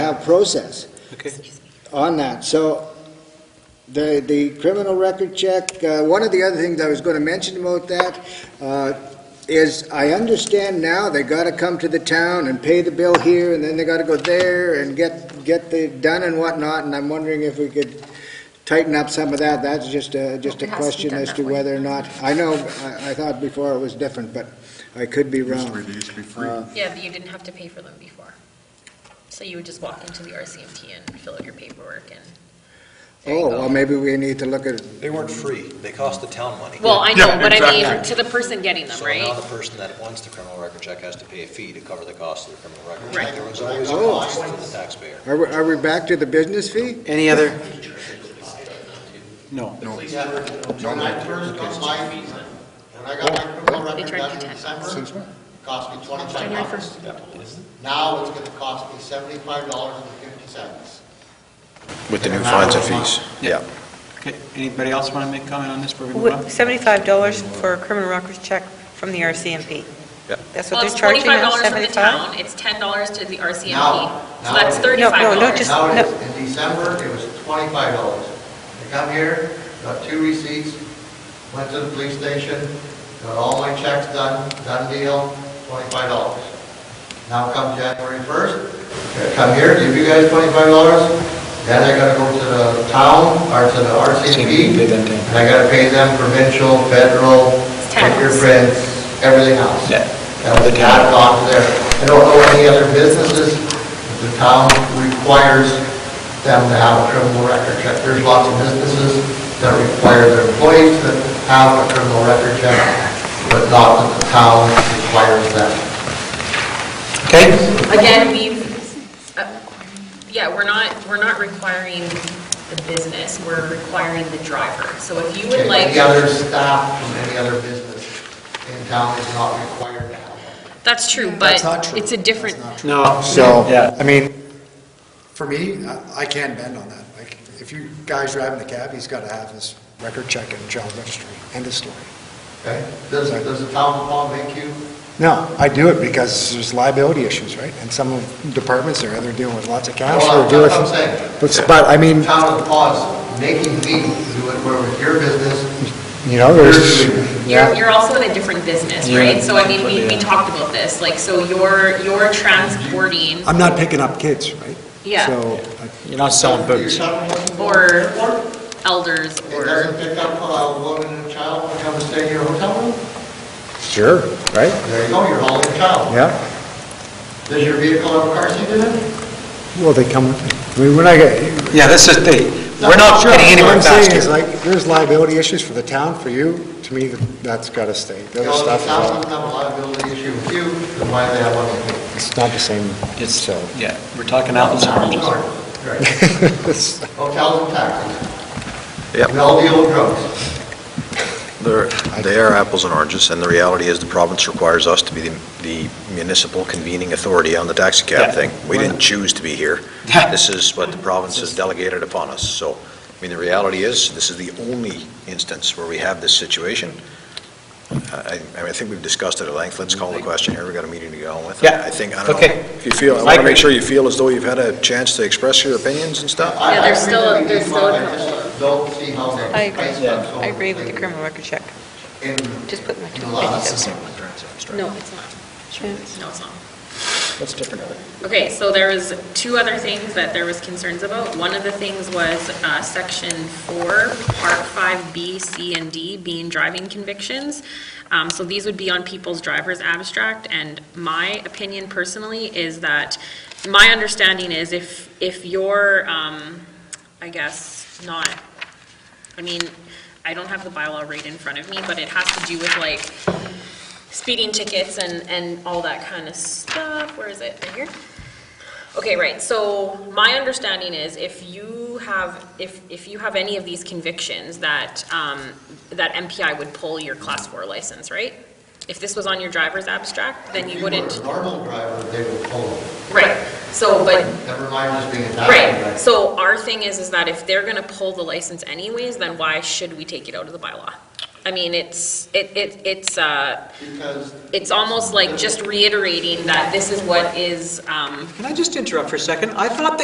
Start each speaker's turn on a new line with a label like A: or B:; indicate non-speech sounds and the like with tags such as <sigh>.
A: have process
B: Okay.
A: on that. So the, the criminal record check, uh, one of the other things I was going to mention about that uh, is I understand now they got to come to the town and pay the bill here and then they got to go there and get, get the done and whatnot. And I'm wondering if we could tighten up some of that. That's just a, just a
C: It has to be
A: question
C: done
A: as
C: that
A: to
C: way.
A: whether or not, I know, I, I thought before it was different, but I could be
D: Used to
A: wrong.
D: be- It used to be free.
A: Uh,
C: Yeah, but you didn't have to pay for them before. So you would just walk into the RCMT and fill out your paperwork and. there you
A: Oh,
C: go.
A: well, maybe we need to look at,
E: They weren't free, they cost the town money.
C: Well, I know,
D: Yeah,
C: but I mean,
A: exactly.
C: to the person getting them,
E: So now
C: right?
E: the person that wants the criminal record check has to pay a fee to cover the cost of the criminal record
C: Right.
E: check. There was always a
A: Oh.
E: cost to the taxpayer.
A: are we, are we back to the business fee?
B: Any other?
D: No.
F: When I first got my visa, when
G: Oh.
F: I got my criminal
C: They
F: record
C: charge
F: back
C: you
F: in
C: ten
F: December,
D: Since when?
F: it cost me twenty-five
C: January
F: dollars.
C: first.
F: Now it's gonna cost me seventy-five dollars and fifty cents.
G: With the new fines and fees,
B: Yeah.
G: yeah.
B: Okay, anybody else want to make comment on this? before we move on?
H: Seventy-five dollars for a criminal records check from the RCMP.
G: Yeah.
H: That's what
C: Well,
H: they're
C: it's
H: charging
C: twenty-five
H: now,
C: dollars from the
H: seventy-five?
C: town, it's ten dollars to the RCMP,
F: Now-
C: so that's
F: now-
C: thirty-five dollars.
H: No, no, no, just-
F: Now, it is- in December, it was twenty-five dollars. I come here, got two receipts, went to the police station, got all my checks done, done deal, twenty-five dollars. Now come January first, come here, give you guys twenty-five dollars, then I gotta go to the town, or to the RCMP,
B: Pay them ten.
F: and I gotta pay them provincial, federal,
C: tax.
F: fingerprints, everything else.
B: Yeah.
F: That was added on to there. I don't know any other businesses, that the town requires them to have a criminal record check. There's lots of businesses that require their employees to have a criminal record check, but not that the town requires them.
B: Okay,
C: Again, we've, uh, yeah, we're not, we're not requiring the business, we're requiring the driver. So if you would like,
F: Any other staff from any other business in town is not required to have one.
C: that's true, but it's a different,
B: no.
I: So,
B: Yeah.
I: I mean, for me, uh, I- I can bend on that. Like, if you guy's driving the cab, he's got to have his record check and child registry. End of story.
F: Okay? Does, does the town of Palm make you
I: No, I do it because there's liability issues, right? And some of departments are, they're dealing with lots of cash.
F: Well,
I: they're dealing
F: that's what
I: with-
F: I'm saying.
I: But, but, I mean,
F: town of Paws making me do it where with your business?
I: you know, there's,
F: You're-
C: you're,
I: yeah,
C: you're also in a different business,
B: Yeah.
C: right? So I mean, we, we
B: Yeah.
C: talked about this, like, so you're, you're transporting,
I: I'm not picking up kids, right?
C: yeah,
I: So,
B: You're not selling boots.
F: Your son wasn't born
C: Or-
F: before?
C: elders
F: It
C: or,
F: doesn't pick up a woman and child when come to stay in your hotel room?
I: sure, right?
F: There you go, you're hauling a child.
I: Yeah,
F: Does your vehicle have a car seat in it?
I: well, they come, I mean, when I get,
B: Yeah, this is the, we're not
I: Sure,
B: getting anywhere
I: What I'm saying is
B: faster.
I: like, there's liability issues for the town, for you, to me, that's gotta stay. The
F: You
I: other
F: know,
I: stuff,
F: the town
I: is-
F: doesn't have a liability issue with you, then why do they have one with me?
I: it's not the same,
B: It's,
I: so.
B: yeah, we're talking apples and <laughs> oranges.
F: Sorry. Right.
I: It's-
F: Hotels and taxis.
G: Yep.
F: We all deal with drugs.
G: They're, they are apples and oranges, and the reality is the province requires us to be the the municipal convening authority on the taxi
B: Yeah.
G: cab thing. We didn't choose to be here.
B: Yeah.
G: This is what the province has delegated upon us, so, I mean, the reality is, this is the only instance where we have this situation. I, I mean, I think we've discussed it at length, let's call the question here, we got a meeting to go on with.
B: Yeah.
G: I think, I don't know,
B: Okay.
G: if you feel, I
B: I
G: want to
B: agree.
G: make sure you feel as though you've had a chance to express your opinions and stuff.
F: I-
C: Yeah,
F: I
C: there's
F: agree
C: still a-
F: that we
C: there's
F: do
C: still a
F: well, I just Don't see how they.
H: I agree.
F: price them so
H: I agree with the
F: completely.
H: criminal record check.
F: in
H: Just put my
F: in
H: two
F: a lot of
H: pennies up
C: no, it's not.
H: there.
C: No, it's not.
G: That's different.
C: Okay, so there was two other things that there was concerns about. One of the things was uh, section four, part five B, C, and D being driving convictions. Um, So these would be on people's driver's abstract, and my opinion personally is that, my understanding is if, if you're, um, I guess, not, I mean, I don't have the bylaw right in front of me, but it has to do with like speeding tickets and, and all that kind of stuff. Where is it? Right here? Okay, right, so my understanding is if you have, if, if you have any of these convictions that, um, that MPI would pull your class four license, right? If this was on your driver's abstract, then
F: If
C: you
F: were
C: wouldn't,
F: a normal driver, they would pull them.
C: right, so, but
F: Never mind just being a taxi driver.
C: Right, so our thing is, is that if they're gonna pull the license anyways, then why should we take it out of the bylaw? I mean, it's, it, it, it's, uh,
F: Because
C: it's almost like just reiterating that this is what is, um,
B: Can I just interrupt for a second? I thought that